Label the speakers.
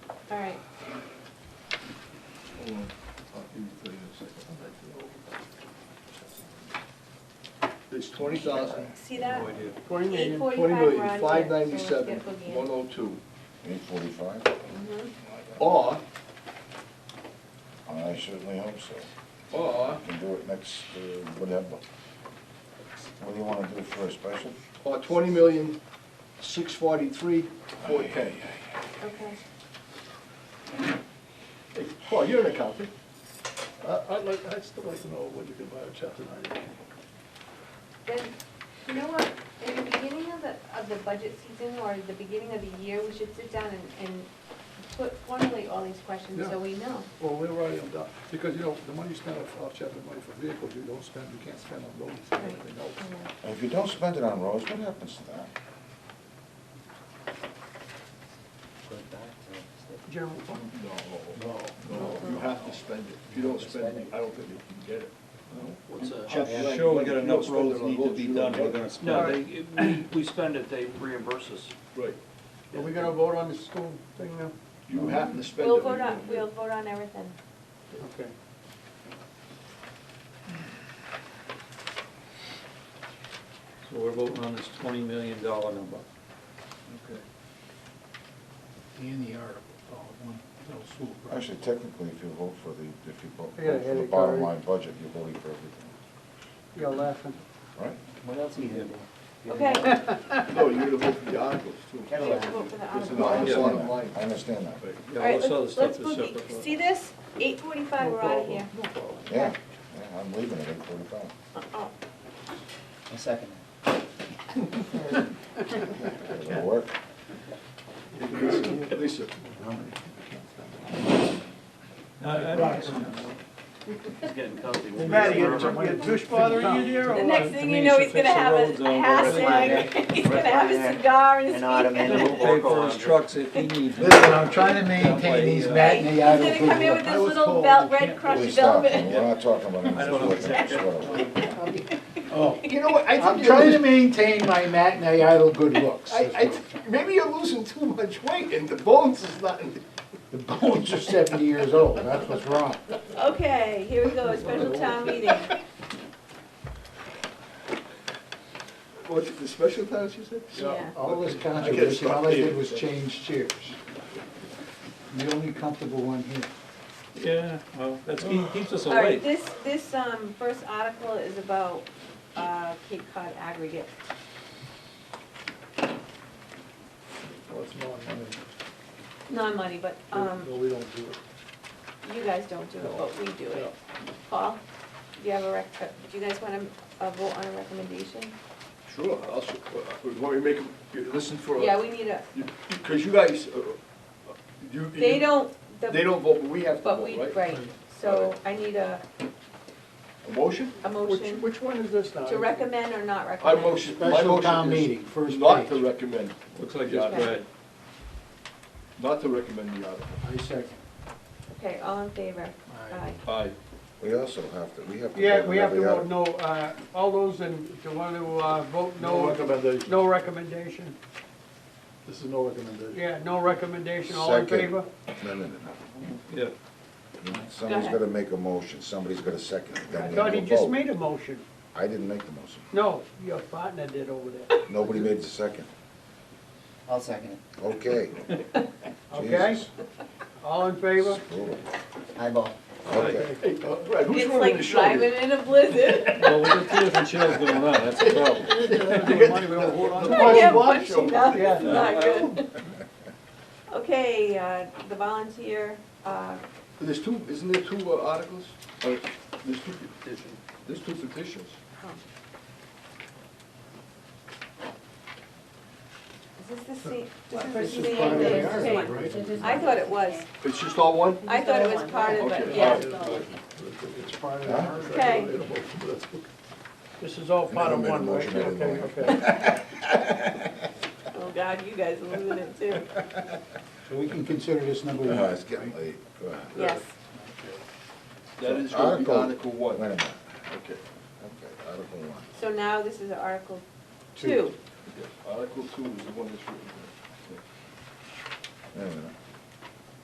Speaker 1: All right,
Speaker 2: Hold on, I'll give you thirty in a second. I'll make it. It's twenty thousand,
Speaker 1: see that?
Speaker 2: twenty million,
Speaker 1: 845
Speaker 2: twenty
Speaker 1: we're
Speaker 2: million,
Speaker 1: on
Speaker 2: five
Speaker 1: here, so let's
Speaker 2: ninety-seven,
Speaker 1: get boogie in.
Speaker 2: one oh two.
Speaker 3: Eight forty-five?
Speaker 1: Mhm.
Speaker 2: Or,
Speaker 3: I certainly hope so.
Speaker 2: or,
Speaker 3: We Can do it next, uh, whatever. What do you wanna do for a special?
Speaker 2: or twenty million, six forty-three, four ten.
Speaker 1: Okay.
Speaker 2: Hey, Paul, you're an accountant. I- I'd like, I'd still like to know what you can buy a chapter ninety.
Speaker 1: Then, you know what, in the beginning of the, of the budget season or the beginning of the year, we should sit down and, and put formally all these questions
Speaker 2: Yeah.
Speaker 1: so we know.
Speaker 2: Well, we're already on that, because, you know, the money you spend off, off chapter money for vehicles, you don't spend, you can't spend on roads and everything else.
Speaker 1: And, uh,
Speaker 3: And If you don't spend it on roads, what happens to that?
Speaker 2: General fund? No, no, no, you have to spend it. If you don't spend it, I don't think you can get it.
Speaker 4: What's a-
Speaker 5: I'm sure we got enough roads need to be done, we're gonna
Speaker 4: No,
Speaker 5: spend.
Speaker 4: they, we, we spend it, they reimburse us.
Speaker 2: Right.
Speaker 4: Are we
Speaker 2: gonna vote on the school thing now? You have to spend it.
Speaker 1: We'll vote on, we'll vote on everything.
Speaker 2: Okay.
Speaker 5: So we're voting on this twenty million dollar number.
Speaker 2: Okay.
Speaker 6: And the article,
Speaker 7: oh,
Speaker 6: all at one, little swoop, right?
Speaker 3: Actually, technically, if you vote for the, if you vote
Speaker 8: I got a
Speaker 3: for the
Speaker 8: headache
Speaker 3: bottom
Speaker 8: already.
Speaker 3: line budget, you're voting for everything,
Speaker 8: You're laughing.
Speaker 3: right?
Speaker 7: What else are you doing?
Speaker 1: Okay,
Speaker 2: No, you're gonna vote for the articles too.
Speaker 1: we have to vote for the
Speaker 2: It's
Speaker 1: article.
Speaker 2: an
Speaker 3: No, I
Speaker 2: article. bottom
Speaker 3: understand that, I
Speaker 2: line.
Speaker 3: understand that.
Speaker 2: Right.
Speaker 5: Yeah,
Speaker 1: All right,
Speaker 5: all this other
Speaker 1: let's, let's
Speaker 5: stuff is
Speaker 1: boogie.
Speaker 5: separate.
Speaker 1: See this? Eight forty-five,
Speaker 2: No
Speaker 1: we're out of
Speaker 2: problem.
Speaker 1: here.
Speaker 2: No problem.
Speaker 3: Yeah, yeah, I'm leaving at eight forty-five.
Speaker 1: Uh-uh.
Speaker 7: A second.
Speaker 3: It'll work.
Speaker 2: Lisa, Lisa,
Speaker 9: Uh,
Speaker 4: He's getting comfy. We'll be
Speaker 6: Matt, you
Speaker 4: forever.
Speaker 6: your tush bothering you there?
Speaker 1: The next thing you know, he's gonna have
Speaker 5: Denise,
Speaker 1: a
Speaker 5: fix the roads over
Speaker 1: hat on, he's gonna have a cigar in his
Speaker 7: An
Speaker 1: hand.
Speaker 7: ottoman.
Speaker 5: We'll pay for his trucks if he needs it.
Speaker 7: Listen, I'm trying to maintain these
Speaker 1: He's
Speaker 7: matinee
Speaker 1: gonna
Speaker 7: idol
Speaker 1: come in with
Speaker 7: people.
Speaker 1: this little vel- red
Speaker 3: Please
Speaker 1: crushed
Speaker 3: stop,
Speaker 1: velvet.
Speaker 3: we're not talking about
Speaker 5: I don't know
Speaker 3: anything.
Speaker 5: exactly.
Speaker 6: Oh,
Speaker 8: You know what, I
Speaker 7: I'm
Speaker 8: think you're,
Speaker 7: trying to
Speaker 8: losing-
Speaker 7: maintain my matinee idol good looks.
Speaker 8: I, I, th- maybe you're losing too much weight and the bones is not,
Speaker 7: The bones are seventy years old, that's what's wrong.
Speaker 1: Okay, here we go, a special town meeting.
Speaker 2: what's it, the special times you said?
Speaker 1: Yeah.
Speaker 7: All this
Speaker 2: I guess
Speaker 7: controversy,
Speaker 2: stop
Speaker 7: all I
Speaker 2: here.
Speaker 7: did was change chairs. The only comfortable one here.
Speaker 5: Yeah, well, that's, he keeps us
Speaker 1: All right,
Speaker 5: awake.
Speaker 1: this, this, um, first article is about, uh, Cape Cod aggregate.
Speaker 2: Well, Oh, it's not money.
Speaker 1: Non-money, but, um,
Speaker 2: No, we don't do it.
Speaker 1: you guys don't do it, but we do it. Paul, do you have a rec, uh, do you guys wanna, uh, vote on a recommendation?
Speaker 2: Sure, I'll, s- uh, want me to make, them- you listen for,
Speaker 1: Yeah, we need a,
Speaker 2: because you guys, uh, uh, you.
Speaker 1: they
Speaker 2: you-
Speaker 1: don't, the-
Speaker 2: They don't vote, but we have to
Speaker 1: but we,
Speaker 2: vote, right?
Speaker 1: right, so I need a,
Speaker 2: A motion?
Speaker 1: a motion
Speaker 6: which one is this now?
Speaker 1: to recommend or not recommend.
Speaker 2: I motion, my
Speaker 7: Special town
Speaker 2: motion is
Speaker 7: meeting, first
Speaker 2: not to
Speaker 7: page.
Speaker 2: recommend,
Speaker 5: Looks like it's red.
Speaker 2: not to recommend the article.
Speaker 7: I second.
Speaker 1: Okay, all in favor? Aye.
Speaker 2: Aye.
Speaker 3: We also have to, we have to. vote
Speaker 9: Yeah,
Speaker 3: on
Speaker 9: we have to
Speaker 3: every
Speaker 9: vote
Speaker 3: article.
Speaker 9: no, uh, all those in, to want to uh, vote
Speaker 2: No
Speaker 9: no,
Speaker 2: recommendation.
Speaker 9: no recommendation.
Speaker 2: This is no recommendation.
Speaker 9: Yeah, no recommendation, all in
Speaker 3: Second.
Speaker 9: favor?
Speaker 3: No, no, no,
Speaker 5: Yeah,
Speaker 3: no. Somebody's
Speaker 1: ahead.
Speaker 3: gonna make a motion, somebody's gonna second it,
Speaker 9: I
Speaker 3: then we have
Speaker 9: thought
Speaker 3: to
Speaker 9: he just
Speaker 3: vote.
Speaker 9: made a motion.
Speaker 3: I didn't make the motion.
Speaker 9: No, your partner did over there,
Speaker 3: Nobody made the second.
Speaker 7: I'll second it.
Speaker 3: Okay.
Speaker 9: okay?
Speaker 3: Jesus.
Speaker 9: All in
Speaker 3: It's
Speaker 9: favor?
Speaker 3: brutal.
Speaker 7: Eyeball.
Speaker 3: Okay.
Speaker 2: Hey, uh, Brad, who's
Speaker 1: It's
Speaker 2: running the
Speaker 1: like
Speaker 2: show? here?
Speaker 1: driving in a blizzard.
Speaker 5: well, we got two different shows going on, that's the problem.
Speaker 9: Money we don't vote on.
Speaker 1: I can't
Speaker 2: watch
Speaker 1: punch
Speaker 2: them.
Speaker 1: enough,
Speaker 9: Yeah.
Speaker 1: it's not good. Okay, uh, the volunteer, uh,
Speaker 2: There's two, isn't there two uh, articles? Or There's two petitions. There's two petitions.
Speaker 1: is this the same, this is the
Speaker 7: This is
Speaker 1: same
Speaker 7: part of
Speaker 1: thing?
Speaker 7: the article,
Speaker 1: Okay.
Speaker 7: right?
Speaker 1: I thought it was,
Speaker 2: It's just all one?
Speaker 1: I thought it was part of it,
Speaker 2: Okay,
Speaker 1: yeah.
Speaker 2: all right.
Speaker 7: It's part of
Speaker 3: the Huh?
Speaker 1: Okay,
Speaker 9: This is all part of
Speaker 3: Never made a
Speaker 9: one, right?
Speaker 3: motion, I didn't
Speaker 9: Okay,
Speaker 3: know.
Speaker 9: okay.
Speaker 1: oh God, you guys are losing it too.
Speaker 7: So we can consider this number one.
Speaker 3: Uh, It's getting late. Uh,
Speaker 1: Yes,
Speaker 2: That is gonna be
Speaker 3: Article-
Speaker 2: Article
Speaker 3: Wait a
Speaker 2: one.
Speaker 3: minute.
Speaker 2: Okay.
Speaker 3: Okay, Article one.
Speaker 1: so now this is Article Two.
Speaker 2: Article two is the one that's written.
Speaker 3: Wait a minute.